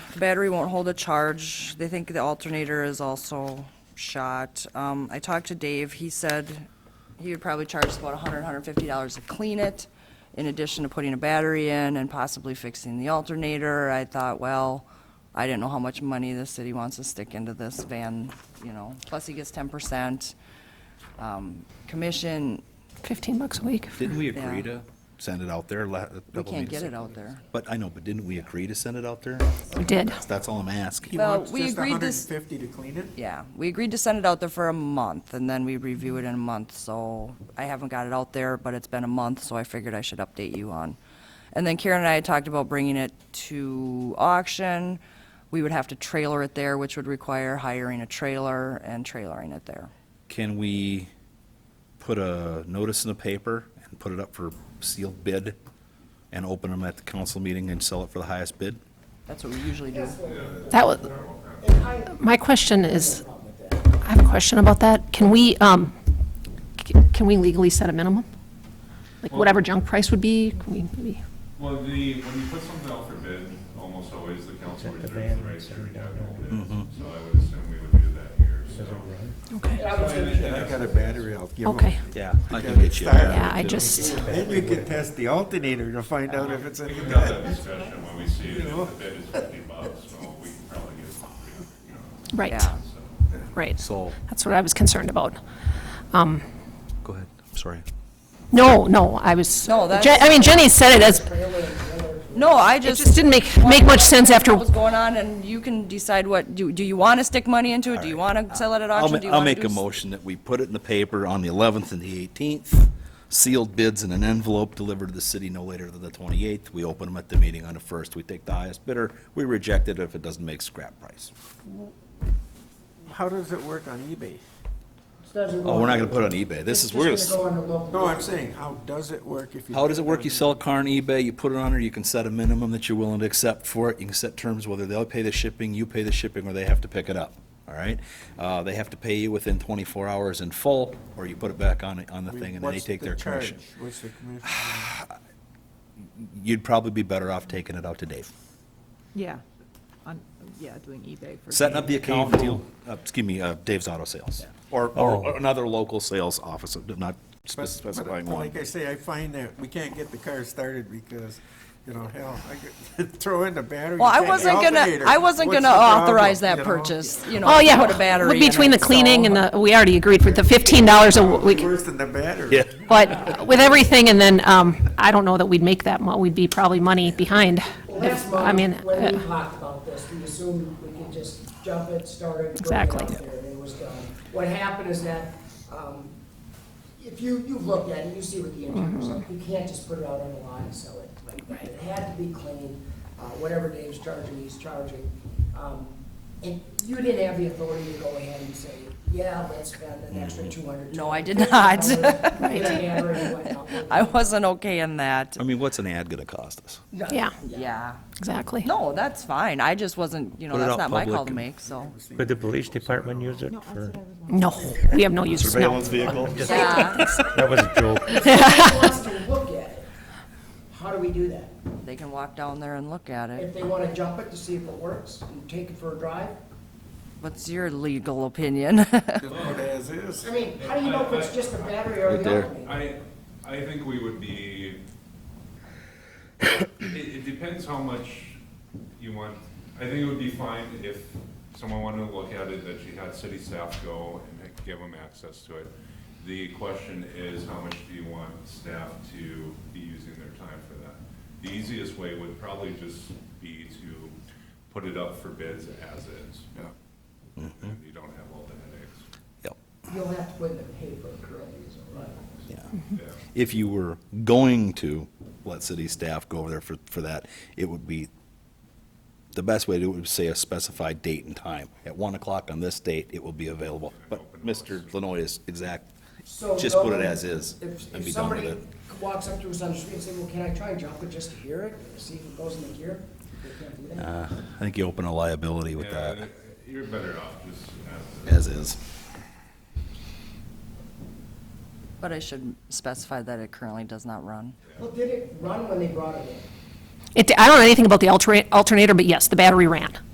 Battery won't hold a charge. They think the alternator is also shot. Um, I talked to Dave. He said he would probably charge us about $100, $150 to clean it, in addition to putting a battery in and possibly fixing the alternator. I thought, well, I didn't know how much money the city wants to stick into this van, you know. Plus, he gets 10% um, commission. 15 bucks a week. Didn't we Yeah. agree to send it out there? la- We can't double meeting? get it out there. But I know, but didn't we agree to send it out there? We did. That's all I'm asking. Well, Wants we just agreed this- 150 to clean it? Yeah, we agreed to send it out there for a month, and then we review it in a month, so I haven't got it out there, but it's been a month, so I figured I should update you on. And then Karen and I had talked about bringing it to auction. We would have to trailer it there, which would require hiring a trailer and trailering it there. Can we put a notice in the paper and put it up for sealed bid and open them at the council meeting and sell it for the highest bid? That's what we usually do. That was, my question is, I have a question about that. Can we, um, c- can we legally set a minimum? Like whatever junk price would be, can we, maybe- Well, the, when you put something out for bid, almost always the council reserves the right to reject all bids. So I would assume we would do that here, so. okay, I got a battery, I'll give 'em. okay. Yeah. I can get you. there. Yeah, I just, Maybe we could test the alternator to find out if it's We any can good. have that discussion when we see it, if the bid is fifty bucks, so we can probably get some, you know, right, Yeah. so. right. So, That's what I was concerned about. go ahead, I'm sorry. No, no, I was, No, Je- that's- I mean, Jenny said it as, No, I it just just, didn't make, make much sense after, what was going on, and you can decide what, do, do you want to stick money into it? Do you want to sell it at I'll, auction? ma- Do you I'll wanna make do a s- motion that we put it in the paper on the 11th and the 18th, sealed bids in an envelope delivered to the city no later than the 28th. We open them at the meeting on the 1st. We take the highest bidder. We reject it if it doesn't make scrap price. How does it work on eBay? Oh, we're not going to put it on eBay. This is, we're going to, No, I'm saying, how does it work if you? how does it work? You sell a car on eBay, you put it on there, you can set a minimum that you're willing to accept for it. You can set terms whether they'll pay the shipping, you pay the shipping, or they have to pick it up, all right? Uh, They have to pay you within 24 hours in full, or you put it back on, on the thing, and then they What's take the their charge? commission. What's the commission? you'd probably be better off taking it out to Dave. Yeah, on, yeah, doing eBay for. Setting up the account, deal, uh, excuse me, uh, Dave's Auto Sales. Or, or another local sales office, I'm not But- spec- but- specifying but one. Like I say, I find that we can't get the car started because, you know, hell, I could throw in the battery. Well, I and the wasn't gonna, alternator. I wasn't What's gonna uh, the problem, authorize that you know? purchase, you know, oh, to yeah. put a battery in Between the it, so- cleaning and the, we already agreed with the $15 a week. Worse than the battery. Yeah. But with everything, and then, um, I don't know that we'd make that mu, we'd be probably money behind. Well, if- that's I mean, when- when we uh, talked about this, we assumed we could just jump it, start it, bring it Exactly. out there, and it was done. What happened is that, um, if you, you've looked at it, you see what the interior's like, you can't just put it out on the line and sell it like that. It had to be cleaned, uh, whatever Dave's charging, he's charging. Um, And you didn't have the authority to go ahead and say, yeah, let's spend an extra two hundred. No, I did not. Right. I wasn't okay in that, I mean, what's an ad gonna cost us? yeah, yeah. exactly. No, that's fine, I just wasn't, you know, Put it that's out not my call public to and- make, so. Could the police department use it for, No, we have no use, no. vehicle? Yeah, that was a joke. If somebody wants to look at it, how do we do that? they can walk down there and look at it. If they want to jump it to see if it works and take it for a drive? What's your legal opinion? Just put as is. I mean, how do you know if it's just a battery or Right the there. alternator? I, I think we would be, it, it depends how much you want. I think it would be fine if someone wanted to look at it, that you had city staff go and give them access to it. The question is, how much do you want staff to be using their time for that? The easiest way would probably just be to put it up for bids as is. Yeah. You don't have all the Yep, You'll have to put in the paper correctly, is all right. yeah. headaches. Yeah. If you were going to let city staff go over there for, for that, it would be, the best way to, do it would say a specified date and time. At one o'clock on this date, it will be available. But Mr. Lenoy is exact, So just put it no- as is If, and if be done with somebody it. walks up to us on the street and say, well, can I try and jump it just to hear it, see if it goes in the gear? They can't do that. Uh, I think you open a liability with Yeah, that, You're better off just as as is. But I should specify that it currently does not run. Well, did it run when they brought it in? It, I don't know anything about the altera- alternator, but yes, the battery ran.